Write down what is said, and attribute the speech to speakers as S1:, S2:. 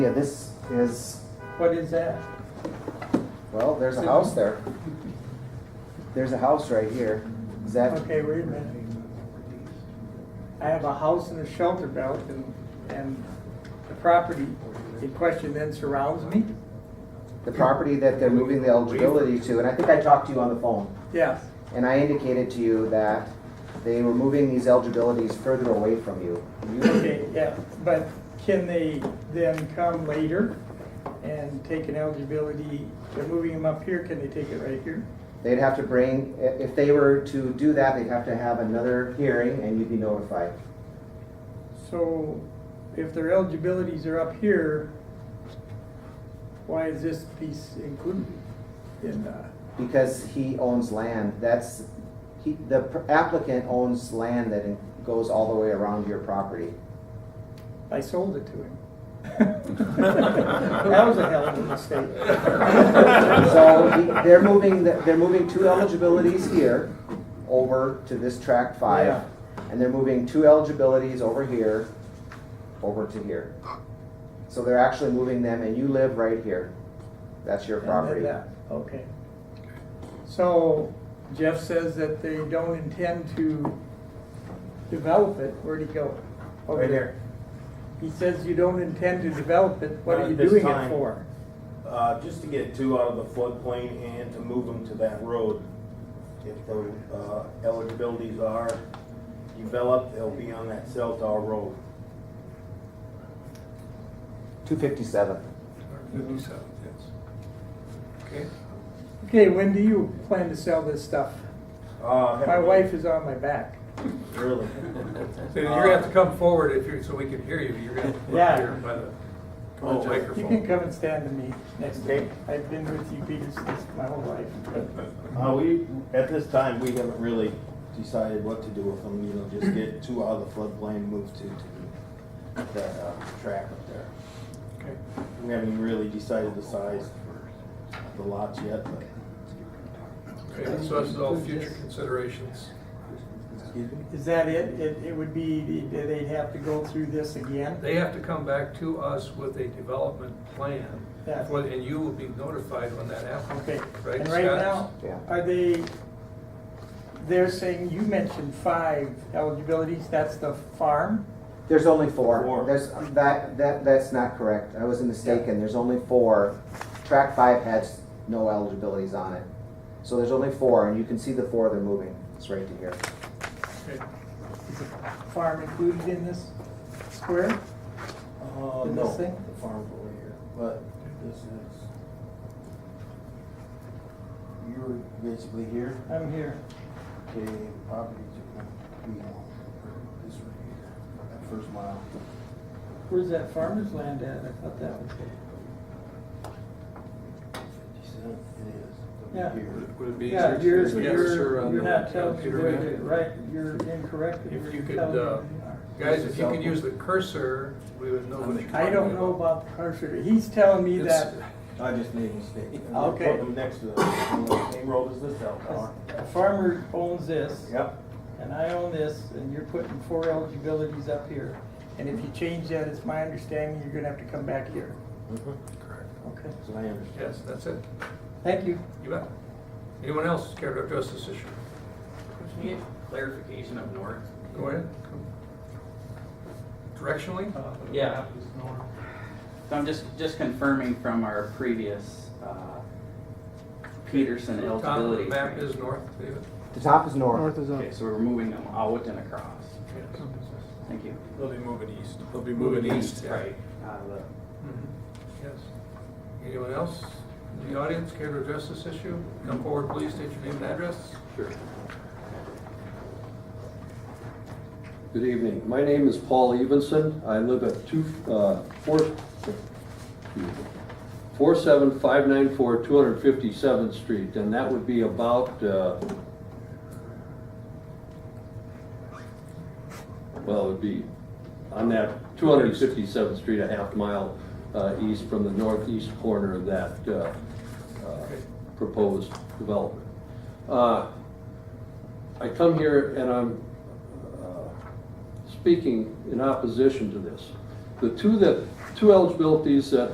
S1: Yeah, this is,
S2: What is that?
S1: well, there's a house there. There's a house right here. Is that,
S2: Okay, wait a minute. I have a house in a shelter belt and, and the property in question then surrounds me?
S1: the property that they're moving the eligibility to, and I think I talked to you on the phone,
S2: Yes,
S1: and I indicated to you that they were moving these eligibilities further away from you. You-
S2: okay, yeah, but can they then come later and take an eligibility, they're moving them up here, can they take it right here?
S1: They'd have to bring, i- if they were to do that, they'd have to have another hearing and you'd be notified.
S2: So if their eligibilities are up here, why is this piece included in, uh,
S1: Because he owns land, that's, he, the applicant owns land that goes all the way around your property.
S2: I sold it to him. That was a hell of a mistake.
S1: So he- they're moving, the- they're moving two eligibilities here over to this tract five.
S2: Yeah.
S1: And they're moving two eligibilities over here, over to here. So they're actually moving them and you live right here. That's your
S2: And then
S1: property.
S2: that, Okay. So Jeff says that they don't intend to develop it. Where'd he go? Over
S3: Right
S2: there.
S3: here.
S2: He says you don't intend to develop it. What
S3: Not
S2: are you
S3: at this
S2: doing it
S3: time.
S2: for?
S3: Uh, just to get two out of the floodplain and to move them to that road. If the, uh, eligibilities are developed, they'll be on that cell tower road.
S1: Two fifty-seven.
S4: Fifty-seven, yes. Okay.
S2: Okay, when do you plan to sell this stuff?
S3: Uh, have
S2: My
S3: we-
S2: wife is on my back.
S3: Really?
S4: So you're gonna have to come forward if you're, so we can hear you, you're gonna have to
S2: Yeah.
S4: look here by the
S3: Come on,
S4: oh,
S3: Jeff.
S2: You can
S4: microphone.
S2: come and stand to me next
S3: Okay.
S2: day. I've been with you people since my whole life.
S3: Uh, we, at this time, we haven't really decided what to do with them, you know, just get two out of the floodplain, move to, to that, uh, track up there.
S2: Okay.
S3: We haven't really decided the size of the lots yet, but.
S4: Okay, so this is all future considerations.
S3: Excuse me?
S2: Is that it? It, it would be, that they'd have to go through this again?
S4: They have to come back to us with a development plan,
S2: Yeah.
S4: for- and you will be notified when that happens.
S2: Okay,
S4: Right,
S2: and right
S4: Scott?
S2: now,
S1: Yeah.
S2: are they, they're saying, you mentioned five eligibilities, that's the farm?
S1: There's only four.
S3: Four.
S1: There's, that, that, that's not correct. I was mistaken. There's only four. Track five has no eligibilities on it. So there's only four and you can see the four they're moving. It's right to here.
S2: Is the Farm included in this square?
S3: Uh,
S2: In
S3: no,
S2: this thing?
S3: the farm's over here, but this is. You're basically here,
S2: I'm here.
S3: okay, property to be on, this right here, that first mile.
S2: Where's that farmer's land at? I thought that was it.
S3: Fifty-seven, it is.
S2: Yeah.
S3: Here.
S5: Would it be easier
S2: Yeah,
S5: to
S2: you're,
S5: just get
S2: you're,
S5: her on
S2: you're
S5: the
S2: not telling,
S5: computer
S2: you're-
S5: map?
S2: you're right, you're incorrect.
S4: If you
S2: You're
S4: could,
S2: telling
S4: uh,
S2: me you are.
S4: Guys, if you could use the cursor, we would know what you're talking about.
S2: I don't know about the cursor. He's telling me
S4: It's-
S2: that
S3: I just made a mistake.
S2: Okay.
S3: Put them next to the same road as this cell tower.
S2: a farmer owns this.
S3: Yep,
S2: and I own this, and you're putting four eligibilities up here. And if you change that, it's my understanding you're gonna have to come back here.
S5: Mm-hmm.
S4: Correct.
S2: Okay.
S3: that's what I understand.
S4: Yes, that's it,
S2: Thank you.
S4: you bet. Anyone else care to address this issue?
S6: Can you get clarification up north?
S4: Go ahead. Directionally?
S6: Yeah. So I'm just, just confirming from our previous uh, Peterson
S4: Tom, the
S6: eligibility.
S4: map
S6: screen.
S4: is north, David.
S1: The top is north.
S6: Okay, so we're moving them out and across. Thank you.
S5: They'll be moving east. They'll be yeah.
S6: Right. out of the-
S4: Mhm. Yes. Anyone else in the audience care to address this issue? Come forward, please, state your name and address.
S7: Sure. Good evening. My name is Paul Evenson. I live at two, uh, four, four seven five nine four two hundred fifty-seventh Street, and that would be about, uh, well, it would be on that two hundred fifty-seventh Street, a half mile, uh, east from the northeast corner of that, uh, uh, proposed development. Uh, I come here and I'm uh, speaking in opposition to this. The two that two eligibilities that